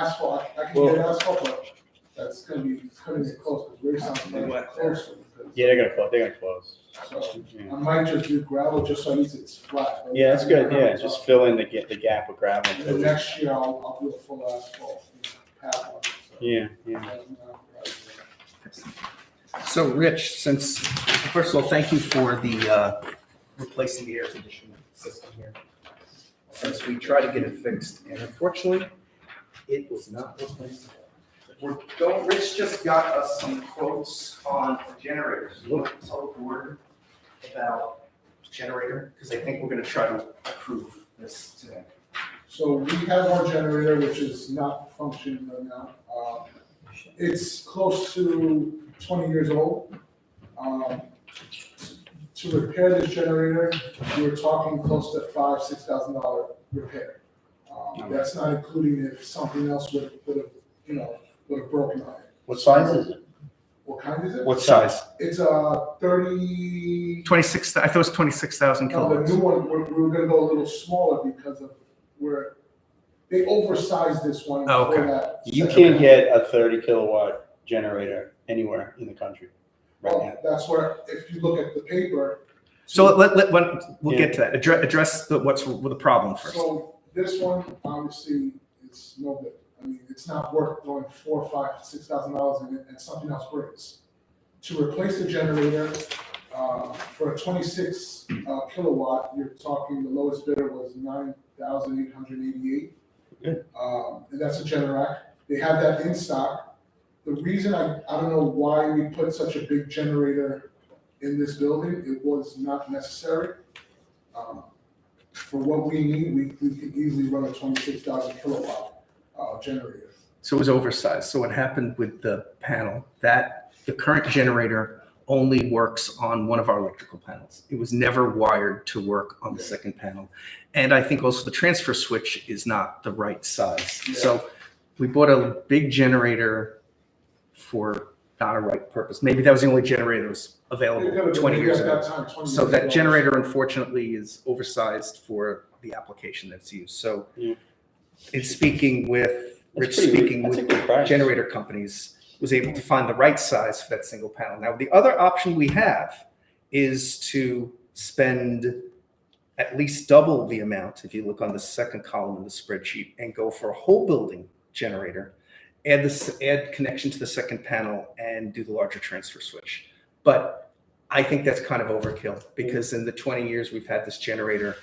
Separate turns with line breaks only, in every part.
asphalt, I can get asphalt, but that's gonna be, it's gonna be close, because we're something like closer. because-
Yeah, they're gonna close, they're gonna close.
So,
Yeah.
I might just do gravel, just so at least it's flat. right?
Yeah, that's good, yeah, just fill in the, ga- the gap with gravel.
And then next year, I'll, I'll do a full asphalt, you know, path on it, so.
Yeah, yeah.
And, uh, right.
So Rich, since, first of all, thank you for the, uh, replacing the air conditioning system here. Since we tried to get it fixed and unfortunately, it was not replaced. We're going, Rich just got us some quotes on generators. Look, it's all board about generator, because I think we're gonna try to approve this today.
So we have our generator, which is not functioning right now. Uh, It's close to twenty years old. Um, To repair this generator, we were talking close to five, six thousand dollar repair. Um, That's not including if something else would, would have, you know, would have broken on it.
What size is it?
What kind is it?
What size?
It's a thirty,
Twenty-six, I thought it was twenty-six thousand
Oh, No, the new one, we're, we're gonna go a little smaller because of where, they oversized this one
Oh,
for
okay.
that.
You
second-
can't get a thirty kilowatt generator anywhere in the country right
Well,
now.
That's where, if you look at the paper.
So let, let, let, we'll get to that. Address, address the, what's the problem first.
So this one, obviously, it's no good. I mean, it's not worth throwing four, five, six thousand dollars in it and something else breaks. To replace the generator, uh, for a twenty-six uh, kilowatt, you're talking, the lowest bidder was nine thousand eight hundred eighty-eight.
Good.
Um, and that's a Generac. They have that in stock. The reason I, I don't know why we put such a big generator in this building, it was not necessary. Um, for what we need, we, we could easily run a twenty-six thousand kilowatt, uh, generator.
So it was oversized. So what happened with the panel, that the current generator only works on one of our electrical panels. It was never wired to work on the second panel. And I think also the transfer switch is not the right size. So we bought a big generator for not a right purpose. Maybe that was the only generator that was
They gotta-
available
they
twenty years
got
ago.
that time, 20
So
years
that
ago.
generator unfortunately is oversized for the application that's used. So
Yeah.
in speaking with,
That's
Rich
pretty-
speaking
that's a
with
good price.
generator companies, was able to find the right size for that single panel. Now, the other option we have is to spend at least double the amount, if you look on the second column of the spreadsheet, and go for a whole building generator, add this, add connection to the second panel and do the larger transfer switch. But I think that's kind of overkill because in the 20 years we've had this generator,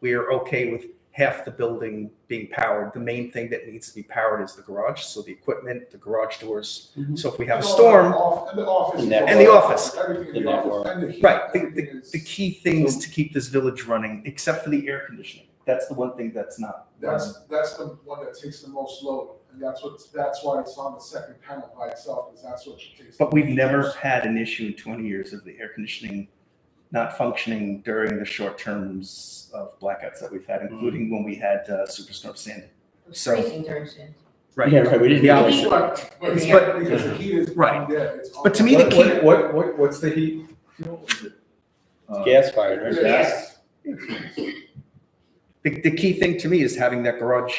we are okay with half the building being powered. The main thing that needs to be powered is the garage, so the equipment, the garage doors.
Mhm.
So if we have a
And all-
storm,
off- And the office.
And that-
And the office.
Everything in
And
the
that
office,
work.
and the heat,
right, the,
everything
the,
is-
the key things to keep this village running, except for the air conditioning. That's the one thing that's not. running.
That's, that's the one that takes the most load, and that's what, that's why it's on the second panel by itself, because that's what it takes.
But we've never had an issue in 20 years of the air conditioning not functioning during the short terms of blackouts that we've had, including when we had uh, Superstorm Sandy. So-
Freezing during June.
Yeah, right, we didn't.
The
do
option.
this.
We worked.
But,
in the
But-
air.
because the heat is.
Right.
Yeah, it's. on.
But to me, the
What-
key-
What, what, what, what's the heat? fuel? Is it, uh,
Gas fired, right?
Yes.
The, the key thing to me is having that garage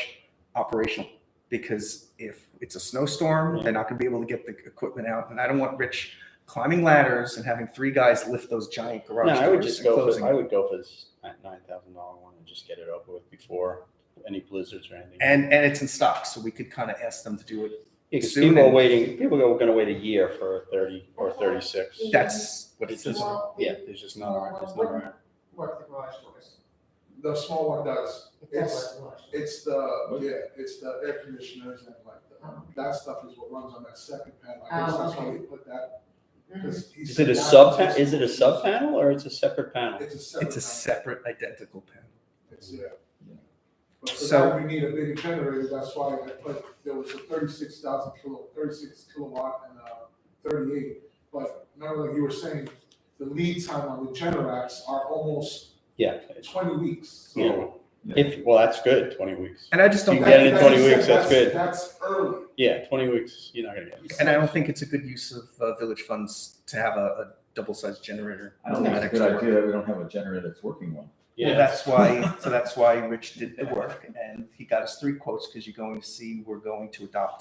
operational because if it's a snowstorm, they're not going to be able to get the equipment out. And I don't want Rich climbing ladders and having three guys lift those giant garage
No,
doors
I would just
and
go
closing
for, I would go for this nine thousand dollar one and just get it over with before any blizzards or anything.
And, and it's in stock, so we could kind of ask them to do it.
Because
soon
people are
and-
waiting, people are gonna wait a year for a thirty or thirty-six.
Yeah.
That's what
It's
it's.
just,
Well, we
yeah, there's just not, around- there's not. around.
Worked the garage doors.
The small one does,
It does
it's,
work the garage doors.
it's the, yeah, it's the air conditioners and like, the- that stuff is what runs on that second panel, I guess
Oh,
that's why
okay. Mm-hmm.
we put that. 'cause he
Is
said
it a
that
sub,
takes-
is it a sub panel or it's a separate panel?
It's a separate.
It's a
panel.
separate identical panel.
It's, yeah. But for
So-
that, we need a bigger generator, that's why I put, there was a thirty-six thousand kilo, thirty-six kilowatt and a thirty-eight. But remember, like you were saying, the lead time on the Generacs are almost
Yeah,
twenty weeks, so.
so if, well, that's good, twenty weeks.
And I just don't.
That-
You
think-
get it in
that
20
is-
weeks, that's good.
That's early.
Yeah, twenty weeks, you're not gonna get it.
And I don't think it's a good use of uh, village funds to have a, a double-sized generator.
I don't think it's a good idea that we don't have a generator that's working well.
Well, that's why, so that's why Rich did the work and he got us three quotes because you're going to see, we're going to adopt